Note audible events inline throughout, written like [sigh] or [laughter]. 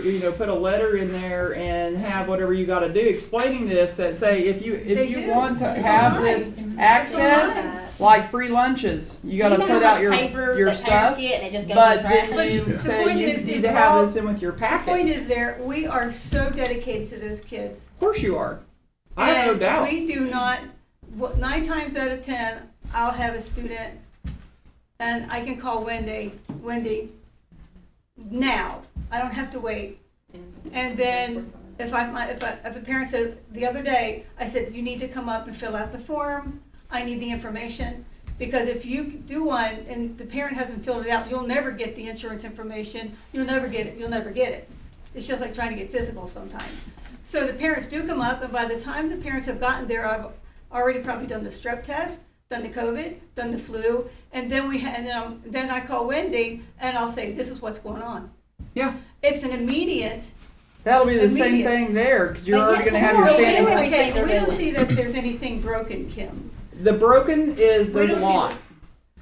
you know, put a letter in there and have whatever you gotta do explaining this, that say, if you, They if you do. want to It's have online. this access, like free lunches, you gotta Do Uh, you know put how out much your, paper your that parents stuff. get and it just goes But in the trash. then you The say point you is, need it's to have all- this in with your The point packet. is there, we are so dedicated to those kids. Of course you are. I have no And doubt. We do not, wh- nine times out of 10, I'll have a student and I can call Wendy, Wendy, now. I don't have to wait. And then if I, my- if I, if a parent said, the other day, I said, you need to come up and fill out the form. I need the information. Because if you do one and the parent hasn't filled it out, you'll never get the insurance information. You'll never get it. You'll never get it. It's just like trying to get physical sometimes. So the parents do come up, and by the time the parents have gotten there, I've already probably done the strep test, done the COVID, done the flu, and then we ha- and um, then I call Wendy and I'll say, "This is what's going on." Yeah, It's an immediate. that'll be the same Immediate. thing there, you you're But already yes, gonna I'm have your not really standing. aware. okay, they're we don't doing. see that there's anything broken, Kim. The broken is, We there's a don't see- lot.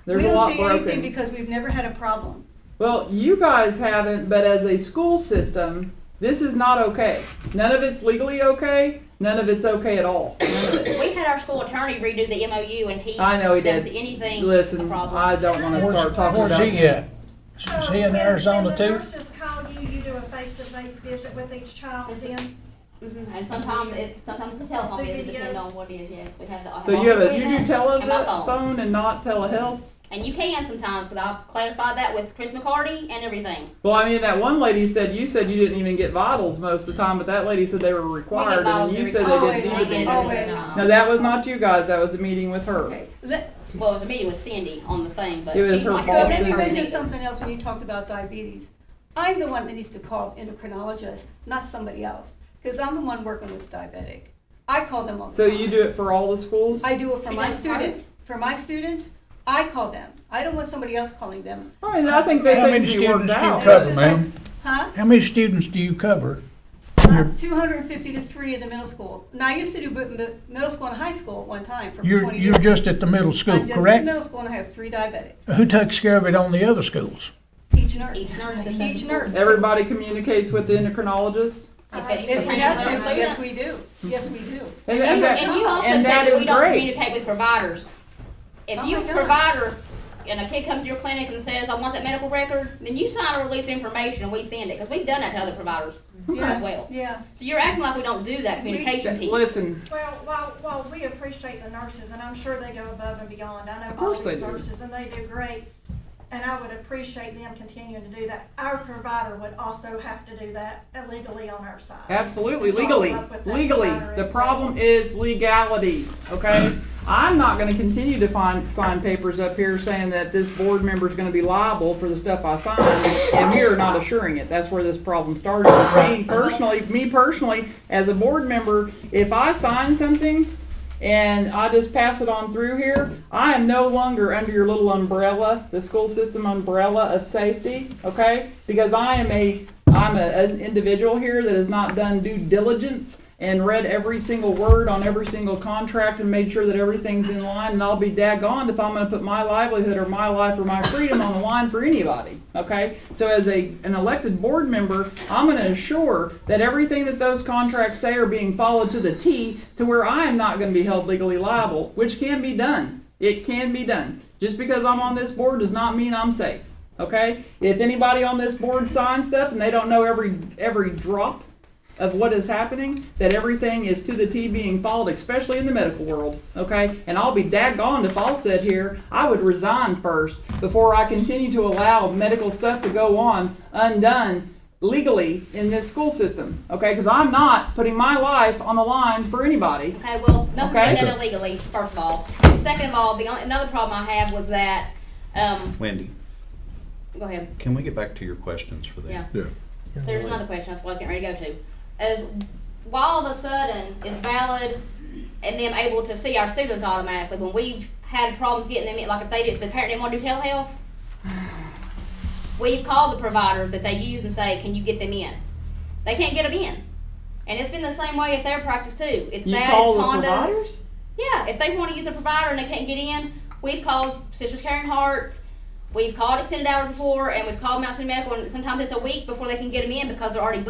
There's we a don't lot see anything broken. because we've never had a problem. Well, you guys haven't, but as a school system, this is not okay. None of it's legally okay. None of it's okay at all. None of it. We had our school attorney redo the MOU and he I know he does did. anything a Listen, problem. I don't want to Where's- start talking Where's about. he at? Is he in Arizona When too? the nurses call you, you do a face-to-face visit with each child then? Mhm, And sometimes it sometimes it's a telephone The visit, video. depending on what it is. Yes, we have the So you have a you do equipment and my phone. telephone and not telehealth. and you can sometimes because I've clarified that with Chris McCarty and everything. Well, I mean, that one lady said you said you didn't even get vitals most of the time, but that lady said they were we required, get bottles and you every said time. they Always, didn't We need get it them. every Always. time. No, that was not you guys. That was a meeting with her. Okay. Let, Well, it was a meeting with Cindy on the thing, but It was she's her not fault. so Well, then here. you Sarah. mentioned something else when you talked about diabetes. I'm the one that needs to call endocrinologist, not somebody else, because I'm the one working with diabetic. I call them all the So time. you do it for all the schools? I do it for She my does student. part. For my students, I call them. I don't want somebody else calling them. I mean, I think they How think many you worked students do you out. And cover? it's just ma'am. like, Huh? How many students do you cover? Two hundred and fifty to three in the middle school. Now, I used to do bu- mi- middle school and high school at one time for You're, twenty years. you're just at the middle I'm school, just in correct? Uh, Middle school and I have three diabetics. Who takes care of it on the other schools? Each nurse. Each nurse that's in Each school. nurse. Everybody communicates with the endocrinologist. If it's If we professional have to, student. yes, we do. Yes, we do. And, And and that, and you also and said that that is we don't great. communicate with providers. If Oh you my God. provider, and a kid comes to your clinic and says, I want that medical record, then you sign a release of information and we send it, because we've done that to other providers as well. Yeah. So you're acting like we don't do that communication piece. Listen, Well, while, while we appreciate the nurses, and I'm sure they go above and beyond, I know all course they these do. nurses, and they do great, and I would appreciate them continuing to do that. Our provider would also have to do that illegally on our side. absolutely, Follow legally, up with that legally. provider The as problem well. is legalities, okay? I'm not gonna continue to find, sign papers up here saying that this board member's gonna be liable for the stuff I sign, and we are not assuring it. That's where this problem started. Me personally, me personally, as a board member, if I sign something and I just pass it on through here, I am no longer under your little umbrella, the school system umbrella of safety, okay? Because I am a, I'm a, an individual here that has not done due diligence and read every single word on every single contract and made sure that everything's in line, and I'll be daggone if I'm gonna put my livelihood or my life or my freedom on the line for anybody, okay? So as a, an elected board member, I'm gonna assure that everything that those contracts say are being followed to the T to where I am not gonna be held legally liable, which can be done. It can be done. Just because I'm on this board does not mean I'm safe, okay? If anybody on this board signs stuff and they don't know every, every drop of what is happening, that everything is to the T being followed, especially in the medical world, okay? And I'll be daggone if I'll sit here, I would resign first before I continue to allow medical stuff to go on undone legally in this school system, okay? Because I'm not putting my life on the line for anybody. Okay, well, nothing's been Okay. done illegally, first of all. Second of all, the, only- another problem I have was that, um, Wendy, go ahead. can we get back to your questions for that? Yeah. Yeah. So there's another question, that's what I was getting ready to go to. Is why all of a sudden is valid and them able to see our students automatically when we've had problems getting them in, like if they did, the parent didn't want to [sighs] do telehealth? We've called the providers that they use and say, can you get them in? They can't get them in. And it's been the same way at their practice too. It's You that, call it's the condos. providers? Yeah, if they want to use a provider and they can't get in, we've called Sisters Caring Hearts, we've called Extended Hours before, and we've called Mount City Medical, and sometimes it's a week before they can get them in because they're already